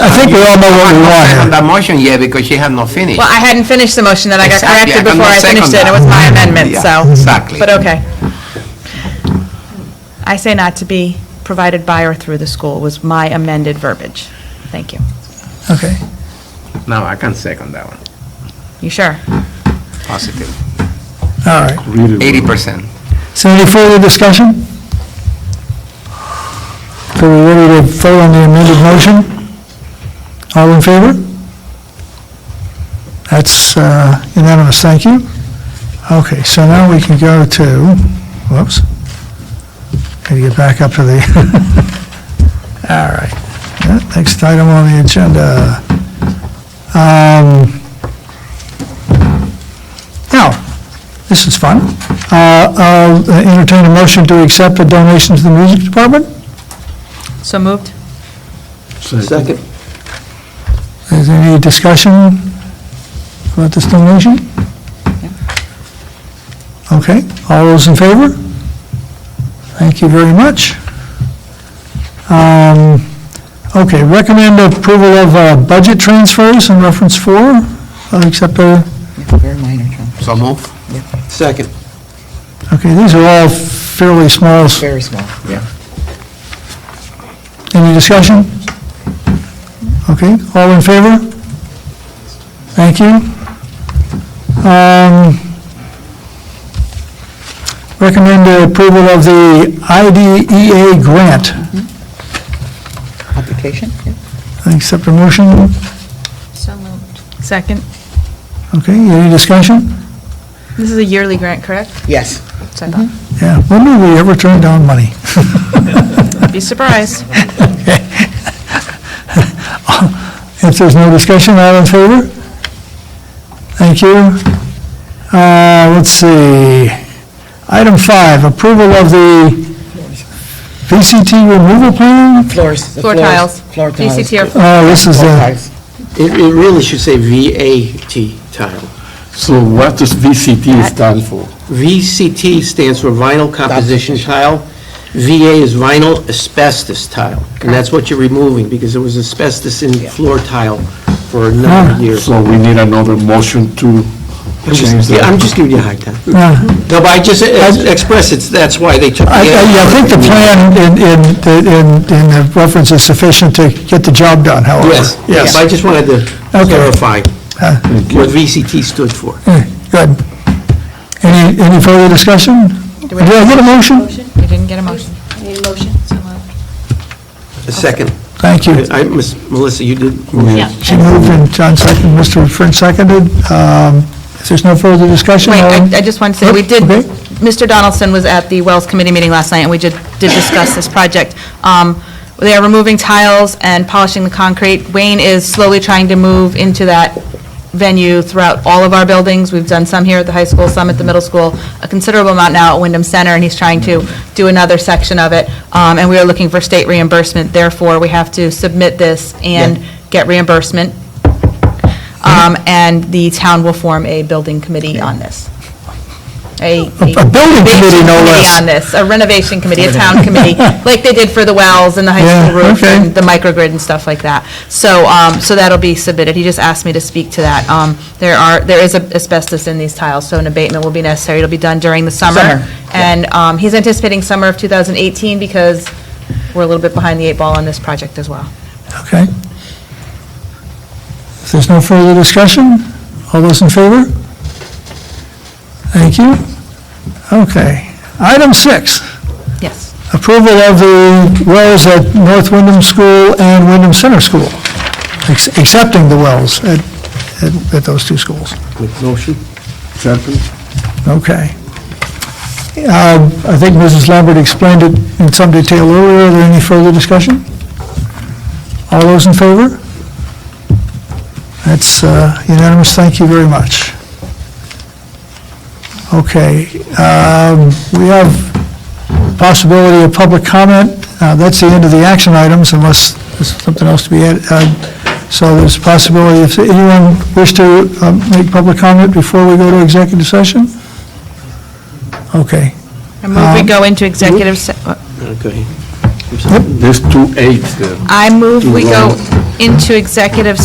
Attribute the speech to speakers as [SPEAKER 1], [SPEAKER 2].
[SPEAKER 1] I think we all know what we
[SPEAKER 2] I'm not second
[SPEAKER 1] want here.
[SPEAKER 2] that motion yet because she had not finished.
[SPEAKER 3] Well, I hadn't finished the motion, then I got
[SPEAKER 2] Exactly,
[SPEAKER 3] corrected
[SPEAKER 2] I
[SPEAKER 3] before I
[SPEAKER 2] cannot
[SPEAKER 3] finished it,
[SPEAKER 2] second
[SPEAKER 3] and it was my
[SPEAKER 2] that.
[SPEAKER 3] amendment,
[SPEAKER 2] Yeah,
[SPEAKER 3] so.
[SPEAKER 2] exactly.
[SPEAKER 3] But okay. I say not to be provided by or through the school was my amended verbiage. Thank you.
[SPEAKER 1] Okay.
[SPEAKER 2] No, I can second that one,
[SPEAKER 3] You sure?
[SPEAKER 2] positive,
[SPEAKER 1] All right.
[SPEAKER 2] eighty percent.
[SPEAKER 1] So any further discussion? So we ready to vote on the amended motion? All in favor? That's uh, unanimous, thank you. Okay, so now we can go to, whoops. Got to get back up to the, all right. Yeah, Next item on the agenda. Um, Now, this is fun. Uh, I'll entertain a motion to accept a donation to the music department.
[SPEAKER 3] So moved?
[SPEAKER 4] Second.
[SPEAKER 1] Is there any discussion about this donation? Okay, all those in favor? Thank you very much. Um, Okay, recommend approval of uh, budget transfers in reference four, I'll accept a,
[SPEAKER 5] Very minor, John.
[SPEAKER 2] So move.
[SPEAKER 4] Second.
[SPEAKER 1] okay, these are all fairly small. s-
[SPEAKER 5] Very small.
[SPEAKER 1] Any discussion? Okay, all in favor? Thank you. Um, Recommend the approval of the IDEA grant.
[SPEAKER 5] Application? yeah.
[SPEAKER 1] Accept a motion.
[SPEAKER 3] So moved. Second.
[SPEAKER 1] Okay, any discussion?
[SPEAKER 3] This is a yearly grant, correct?
[SPEAKER 5] Yes.
[SPEAKER 3] So I thought.
[SPEAKER 1] Yeah, when did we ever turn down money?
[SPEAKER 3] Be surprised.
[SPEAKER 1] If there's no discussion, all in favor? Thank you. Uh, Let's see. Item five, approval of the VCT removal plan?
[SPEAKER 5] Floors. the
[SPEAKER 3] Floor
[SPEAKER 5] floors,
[SPEAKER 3] tiles.
[SPEAKER 5] Floor tiles.
[SPEAKER 3] VCT or
[SPEAKER 5] Floor
[SPEAKER 1] Oh, this is the,
[SPEAKER 5] tiles.
[SPEAKER 4] It, it really should say VAT tile.
[SPEAKER 6] So what does VCT stand for?
[SPEAKER 4] VCT stands for vinyl composition tile. VA is vinyl asbestos tile. And that's what you're removing, because there was asbestos in floor tile for a number
[SPEAKER 1] uh,
[SPEAKER 4] of years.
[SPEAKER 6] So we need another motion to
[SPEAKER 4] I'm
[SPEAKER 6] change
[SPEAKER 4] just- yeah, I'm
[SPEAKER 1] Ah.
[SPEAKER 6] that.
[SPEAKER 4] just giving you a hard time.
[SPEAKER 1] yeah.
[SPEAKER 4] No, but I just ex- express it's, that's why they took the...
[SPEAKER 1] uh, I, I yeah, I think the plan in, in, in, in the reference is sufficient to get the job done, however.
[SPEAKER 4] Yes, yes. I just wanted to
[SPEAKER 1] Okay. Ah.
[SPEAKER 4] clarify what VCT stood for.
[SPEAKER 1] Yeah, Good. Any, any further discussion? Did
[SPEAKER 3] we-
[SPEAKER 1] I get a motion?
[SPEAKER 3] motion? You didn't get a motion.
[SPEAKER 4] A second.
[SPEAKER 1] Thank you.
[SPEAKER 4] I, Miss Melissa, you did...
[SPEAKER 1] She moved and John seconded, Mr. French seconded. Um, If there's no further discussion,
[SPEAKER 3] Wait,
[SPEAKER 1] all in-
[SPEAKER 3] I I just want to say, we did,
[SPEAKER 1] Okay.
[SPEAKER 3] Mr. Donaldson was at the Wells Committee meeting last night, and we did did discuss this project. Um, They are removing tiles and polishing the concrete. Wayne is slowly trying to move into that venue throughout all of our buildings. We've done some here at the high school, some at the middle school, a considerable amount now at Wyndham Center, and he's trying to do another section of it. Um, And we are looking for state reimbursement, therefore, we have to submit this and get reimbursement. Um, And the town will form a building committee on this. A
[SPEAKER 1] a building committee, no
[SPEAKER 3] renovation
[SPEAKER 1] less.
[SPEAKER 3] On this, a renovation committee, a town committee, like they did for the wells and the high
[SPEAKER 1] Yeah,
[SPEAKER 3] school roof
[SPEAKER 1] okay.
[SPEAKER 3] and the microgrid and stuff like that. So, um, so that'll be submitted. He just asked me to speak to that. Um, There are, there is asbestos in these tiles, so an abatement will be necessary. It'll be done during the summer.
[SPEAKER 5] Summer,
[SPEAKER 3] And um, he's anticipating summer of 2018 because we're a little bit behind the eight ball on this project as well.
[SPEAKER 1] Okay. If there's no further discussion, all those in favor? Thank you. Okay. Item six,
[SPEAKER 3] Yes.
[SPEAKER 1] approval of the wells at North Wyndham School and Wyndham Center School, ex- accepting the wells at, at- at those two schools.
[SPEAKER 6] Motion? Second?
[SPEAKER 1] Okay. Um, I think Mrs. Lambert explained it in some detail earlier. Are there any further discussion? All those in favor? That's uh, unanimous. Thank you very much. Okay. um, We have possibility of public comment. Uh, That's the end of the action items unless there's something else to be added. Uh, So there's a possibility if anyone wish to um, make public comment before we go to executive session? Okay. Um,
[SPEAKER 4] Uh,
[SPEAKER 3] I move we go into executive, se-
[SPEAKER 4] Okay. or something?
[SPEAKER 6] There's two eights there.
[SPEAKER 3] I move we go
[SPEAKER 6] Right.
[SPEAKER 3] into executive